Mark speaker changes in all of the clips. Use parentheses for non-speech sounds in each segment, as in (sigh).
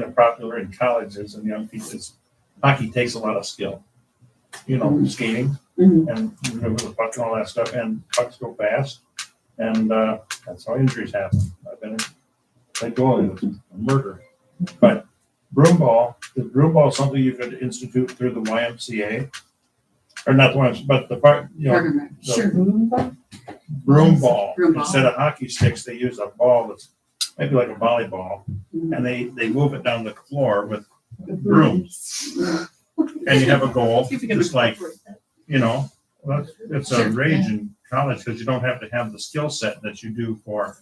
Speaker 1: kind of popular in colleges and young people is hockey takes a lot of skill. You know, skating
Speaker 2: Mhm.
Speaker 1: and remember the puck and all that stuff, and pucks go fast, and uh, that's how injuries happen. I've been let go of a murder, but broom ball is broom ball something you could institute through the YMCA, or not the YMCA, but the part you know
Speaker 2: Program,
Speaker 1: the-
Speaker 2: Sure.
Speaker 1: broom ball
Speaker 2: Broom ball.
Speaker 1: instead of hockey sticks. They use a ball that's maybe like a volleyball,
Speaker 2: Mhm.
Speaker 1: and they they move it down the floor with brooms. and you
Speaker 2: (laughs)
Speaker 1: have a goal, just like, you know, that's, it's a
Speaker 2: Sure,
Speaker 1: rage in college because you don't have to have the skill set that you do for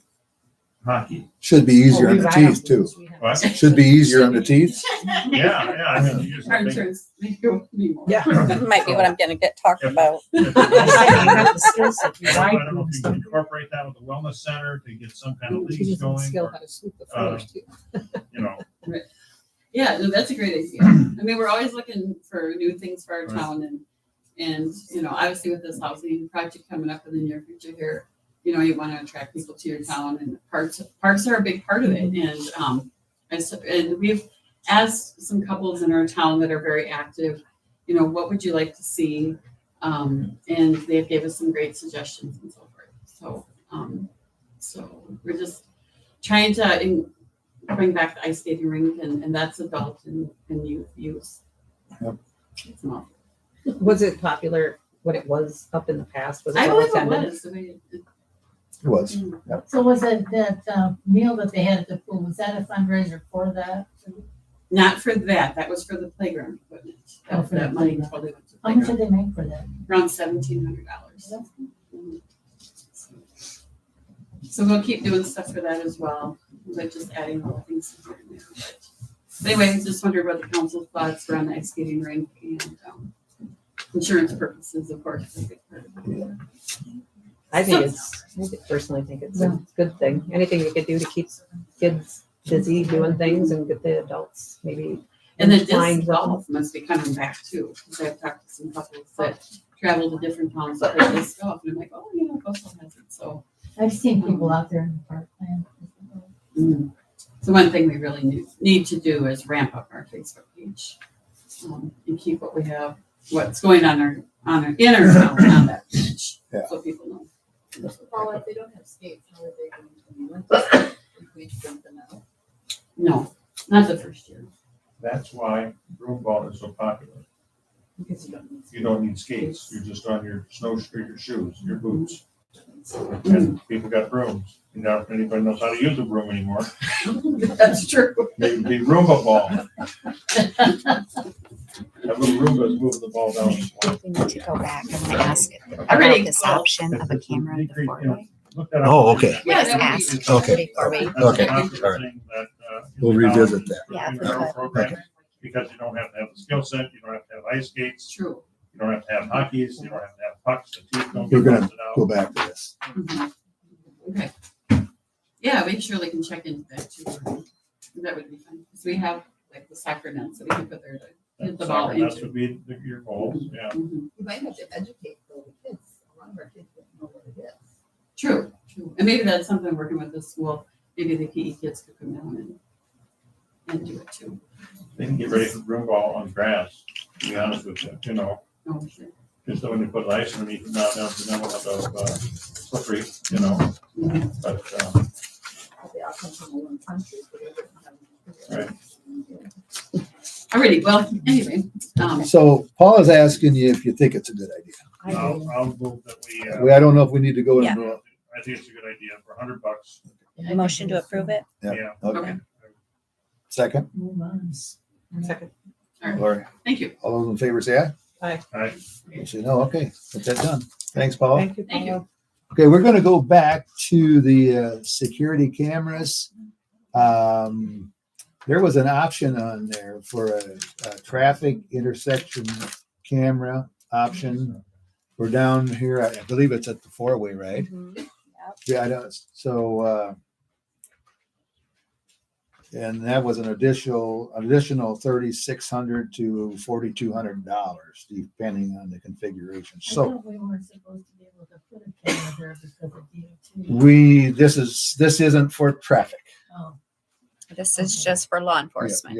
Speaker 1: hockey.
Speaker 3: Should be
Speaker 4: Oh,
Speaker 3: easier on the teeth too.
Speaker 1: But,
Speaker 3: Should be easier on the teeth.
Speaker 1: yeah, yeah, I mean, you just
Speaker 2: (laughs) Our
Speaker 1: think-
Speaker 2: insurance may go anymore.
Speaker 1: (laughs)
Speaker 4: Yeah.
Speaker 1: I
Speaker 2: (laughs)
Speaker 5: That might be what I'm gonna get talked about.
Speaker 1: don't I don't know if you can incorporate that with the wellness center to get some kind of leagues going, or, uh, you know,
Speaker 2: Yeah, no, that's a great idea. I mean, we're always looking for new things for our
Speaker 1: Right.
Speaker 2: town and, and, you know, obviously with this housing project coming up in the near future here, you know, you want to attract people to your town and parks, parks are a big part of it. And, um, and so, and we've asked some couples in our town that are very active, you know, what would you like to see? Um, and they gave us some great suggestions and so forth. So, um, so we're just trying to en- bring back the ice skating rink and, and that's adult and, and youth use.
Speaker 3: Yep.
Speaker 2: It's not-
Speaker 4: Was it popular, what it was up in the past? Was
Speaker 2: I
Speaker 4: it well
Speaker 2: believe it
Speaker 4: attended?
Speaker 2: was. the way it-
Speaker 3: It was.
Speaker 6: So was it that uh, meal that they had at the pool, was that a fundraiser for that?
Speaker 2: Not for that, that was for the playground equipment. Oh, That was that money totally went to
Speaker 6: How much
Speaker 2: playground,
Speaker 6: did they make for that?
Speaker 2: around seventeen hundred dollars. So we'll keep doing stuff for that as well, but just adding little things to it there. But Anyway, I just wondered what the council thoughts were on the ice skating rink and, um, insurance purposes, of course. is a big part of it.
Speaker 4: I think it's, I think- personally think it's a good thing. Anything you could do to keep kids busy doing things and get the adults maybe.
Speaker 2: And then
Speaker 4: inclined
Speaker 2: disc
Speaker 4: to-
Speaker 2: golf must be coming back too, because I've talked to some couples that travel to different towns for disc golf, and I'm like, oh, yeah, Coastal has it, so.
Speaker 6: I've seen people out there in the park playing.
Speaker 2: So one thing we really need, need to do is ramp up our Facebook page. um, And keep what we have, what's going on our, on our, in our town on that page,
Speaker 3: Yeah.
Speaker 2: so people know.
Speaker 7: Paul, if they don't have skates, how are they going to know? If we dump them out?
Speaker 2: No, not the first
Speaker 7: (laughs)
Speaker 2: year.
Speaker 1: that's why broom ball is so popular.
Speaker 7: Because you don't need
Speaker 1: You don't need skates, you're just on your snowshoe, your shoes, your boots. And people got brooms, you know, if anybody knows how to use a broom anymore,
Speaker 2: That's true.
Speaker 1: they, they Roomba ball. That little Roomba's moving the ball down. the floor.
Speaker 8: We need to go back and ask
Speaker 2: Already
Speaker 8: about this
Speaker 2: called.
Speaker 8: option of a camera in the
Speaker 1: Decrease, you know,
Speaker 8: four-way.
Speaker 1: look that up.
Speaker 3: Oh, okay.
Speaker 8: Let's
Speaker 2: Yeah, that would
Speaker 8: ask
Speaker 1: be-
Speaker 3: Okay.
Speaker 8: before we.
Speaker 3: Okay.
Speaker 1: That's
Speaker 3: All
Speaker 1: the
Speaker 3: right.
Speaker 1: thing that, uh, in
Speaker 3: We'll
Speaker 1: uh, the
Speaker 3: revisit
Speaker 1: colleges,
Speaker 8: that. Yeah,
Speaker 1: in
Speaker 8: for
Speaker 1: our
Speaker 8: the-
Speaker 1: program, Because you don't have to have the skill set, you don't have to have ice
Speaker 2: It's
Speaker 1: skates,
Speaker 2: true.
Speaker 1: you don't have to have hockeys, you don't have to have pucks, the teeth don't
Speaker 3: We're
Speaker 1: get
Speaker 3: gonna
Speaker 1: busted out.
Speaker 3: Go back to this.
Speaker 2: Mhm. Okay. Yeah, we surely can check into that too. That would be fun, because we have like the soccer nets that we can put there to hit the ball
Speaker 1: Soccer, That
Speaker 2: into.
Speaker 1: would be the- your goals, yeah.
Speaker 2: Mhm.
Speaker 7: We might have to educate though the kids, a lot of our kids don't know what it is.
Speaker 2: True, true. And maybe that's something working with the school, maybe the PE kids could come down and, and do it too.
Speaker 1: They can get ready for broom ball on grass, to be honest with you, you know.
Speaker 2: Oh, sure.
Speaker 1: Just so when you put ice underneath it, not down to the level of, uh, slippery, you know,
Speaker 2: Mhm.
Speaker 1: but, um,
Speaker 7: But They all come from a long country, but they don't have.
Speaker 2: Alrighty, well, anyway, um,
Speaker 3: So Paul is asking you if you think it's a good idea.
Speaker 4: I agree.
Speaker 1: I'll, I'll move that we, uh,
Speaker 3: We, I don't know if we need to go
Speaker 8: Yeah.
Speaker 3: into. a-
Speaker 1: I think it's a good idea for a hundred bucks,
Speaker 8: Motion to approve it?
Speaker 3: Yeah.
Speaker 1: yeah.
Speaker 3: Okay. Second,
Speaker 6: Move on.
Speaker 4: Second.
Speaker 3: Lori.
Speaker 2: thank you.
Speaker 3: All those in favor say aye.
Speaker 1: I,
Speaker 3: Say no. Okay, get that done. Thanks, Paul.
Speaker 4: Thank you.
Speaker 2: Thank you.
Speaker 4: Paula.
Speaker 3: Okay, we're gonna go back to the uh, security cameras. Um, there was an option on there for a, a traffic intersection camera option. We're down here, I believe it's at the four-way, right? Yeah, I know, so, uh, and that was an additional, additional thirty-six hundred to forty-two hundred dollars, depending on the configuration,
Speaker 6: I
Speaker 3: so.
Speaker 6: thought we weren't supposed to be able to put a camera there because of DOT.
Speaker 3: We, this is, this isn't for traffic.
Speaker 6: Oh,
Speaker 8: This is just for law enforcement.